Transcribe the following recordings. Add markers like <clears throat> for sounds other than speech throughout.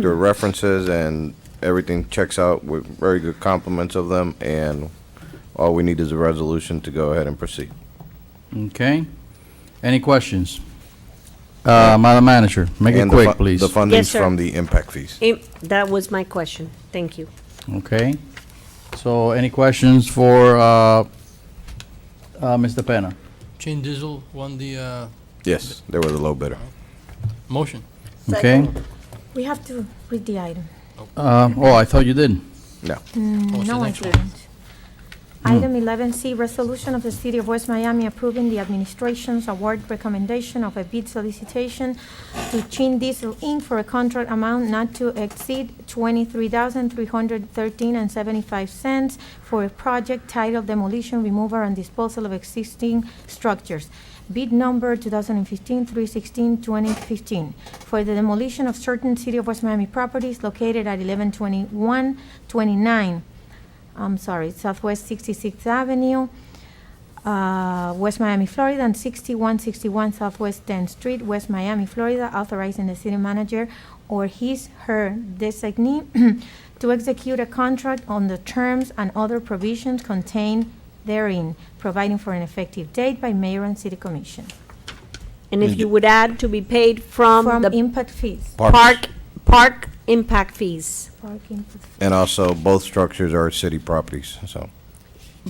their references and everything checks out with very good compliments of them, and all we need is a resolution to go ahead and proceed. Okay. Any questions? Uh, Madam Manager, make it And the quick, fu- please. The funding's Yes, sir. from the impact fees. Im- That was my question. Thank you. Okay. So any questions for, uh, uh, Mr. Penna? Chain Digital won the uh, Yes, they were the low bidder. motion. Okay. We have to read the item. Uh, oh, I thought you did. No. What's the No, I next one? didn't. Item eleven C, resolution of the City of West Miami approving the administration's award recommendation of a bid solicitation to Chin Diesel Inc. for a contract amount not to exceed twenty-three thousand three hundred thirteen and seventy-five cents for a project titled demolition, removal, and disposal of existing structures. Bid number 2015-316-2015 for the demolition of certain City of West Miami properties located at 1121, 29, I'm sorry, Southwest 66th Avenue, uh, West Miami, Florida, and 6161 Southwest 10th Street, West Miami, Florida, authorizing the city manager or his/her designee <clears throat> to execute a contract on the terms and other provisions contained therein, providing for an effective date by mayor and city commission. And if you would add to be paid Um, from From the impact fees. park, park impact fees. Park impact fees. And also, both structures are city properties, so.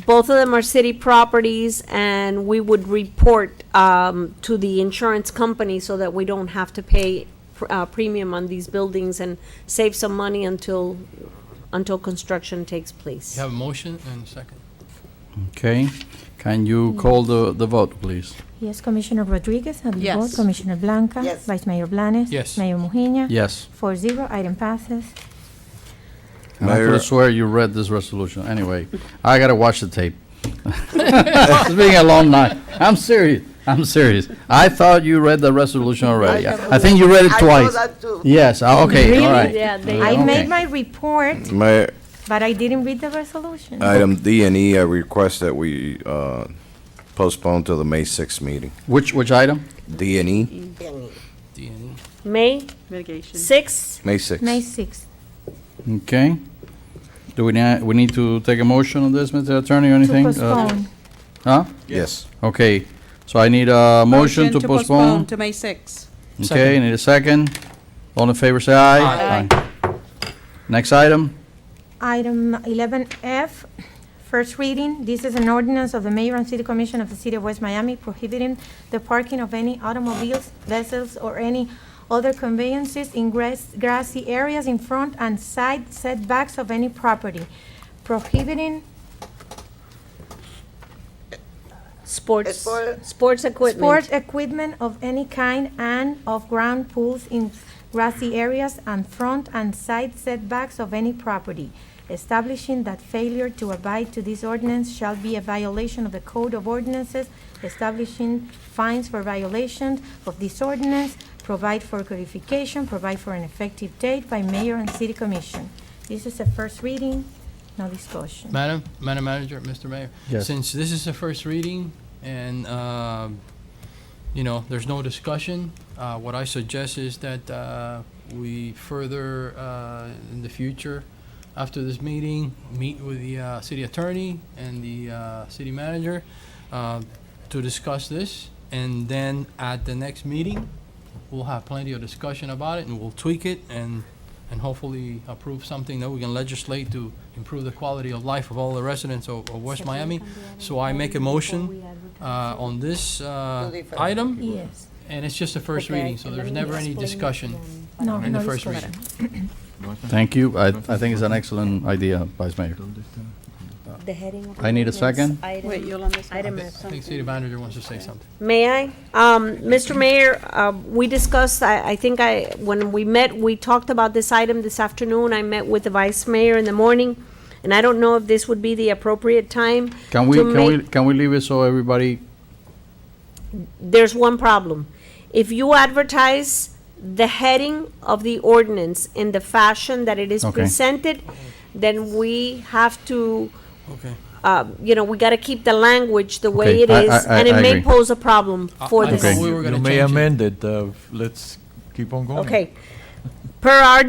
Both of them are city properties, and we would report um, to the insurance company so that we don't have to pay pr- uh, premium on these buildings and save some money until, until construction takes place. You have a motion and a second. Okay. Can you call the, the vote, please? Yes, Commissioner Rodriguez, how do you vote? Yes. Commissioner Blanca? Yes. Vice Mayor Blanes? Yes. Mayor Mujina? Yes. Four zero, item passes. And I Mayor- could swear you read this resolution. Anyway, I gotta watch the tape. <laughs> It's been a long night. I'm serious. I'm serious. I thought you read the resolution already. I think you read it I know twice. that too. Yes, ah, okay, all right. Ah, Yeah, they- I Okay. made my report, Mayor, but I didn't read the resolution. item D and E, I request that we uh, postpone till the May 6th meeting. Which, which item? D and E, D and May Mitigation. 6th, May 6th. May sixth. Okay. Do we, na- we need to take a motion on this, Mr. Attorney, or To anything? Uh, postpone. Huh? Yes. Okay, so I need a motion to postpone. To May 6. Okay, need a second. All in favor, say aye. Aye. Next item? Item eleven F, first reading. This is an ordinance of the mayor and city commission of the city of West Miami prohibiting the parking of any automobiles, vessels, or any other conveyances in grass- grassy areas in front and side setbacks of any property, prohibiting sports, Sport- sports equipment. Sport equipment of any kind and off-ground pools in grassy areas and front and side setbacks of any property, establishing that failure to abide to this ordinance shall be a violation of the Code of Ordinances, establishing fines for violations of this ordinance, provide for codification, provide for an effective date by mayor and city commission. This is a first reading, no discussion. Madam, Madam Manager, Mr. Mayor. Yes. Since this is the first reading and, um, you know, there's no discussion, uh, what I suggest is that uh, we further, uh, in the future, after this meeting, meet with the uh, city attorney and the uh, city manager uh, to discuss this. And then at the next meeting, we'll have plenty of discussion about it and we'll tweak it and, and hopefully approve something that we can legislate to improve the quality of life of all the residents of, of West Miami. So I make a motion uh, on this uh, item, Yes, and it's just a first reading, so there's never any discussion no, in the no first discussion. reading. Thank you. I, I think it's an excellent idea, Vice Mayor. The heading of I need a ordinance, second. item- Wait, Yolanda said- Item I F. think city manager wants to say something. May I? Um, Mr. Mayor, uh, we discussed, I, I think I, when we met, we talked about this item this afternoon. I met with the vice mayor in the morning, and I don't know if this would be the appropriate time. Can we, to can we, make- can we leave it so everybody, There's one problem. If you advertise the heading of the ordinance in the fashion that it is Okay. presented, then we have to, Okay. uh, you know, we gotta keep the language the Okay, way it I- is, I- I- and it I may agree. pose a problem for I this. thought we were You gonna may change it. amend it, uh, let's keep on going. Okay. Per our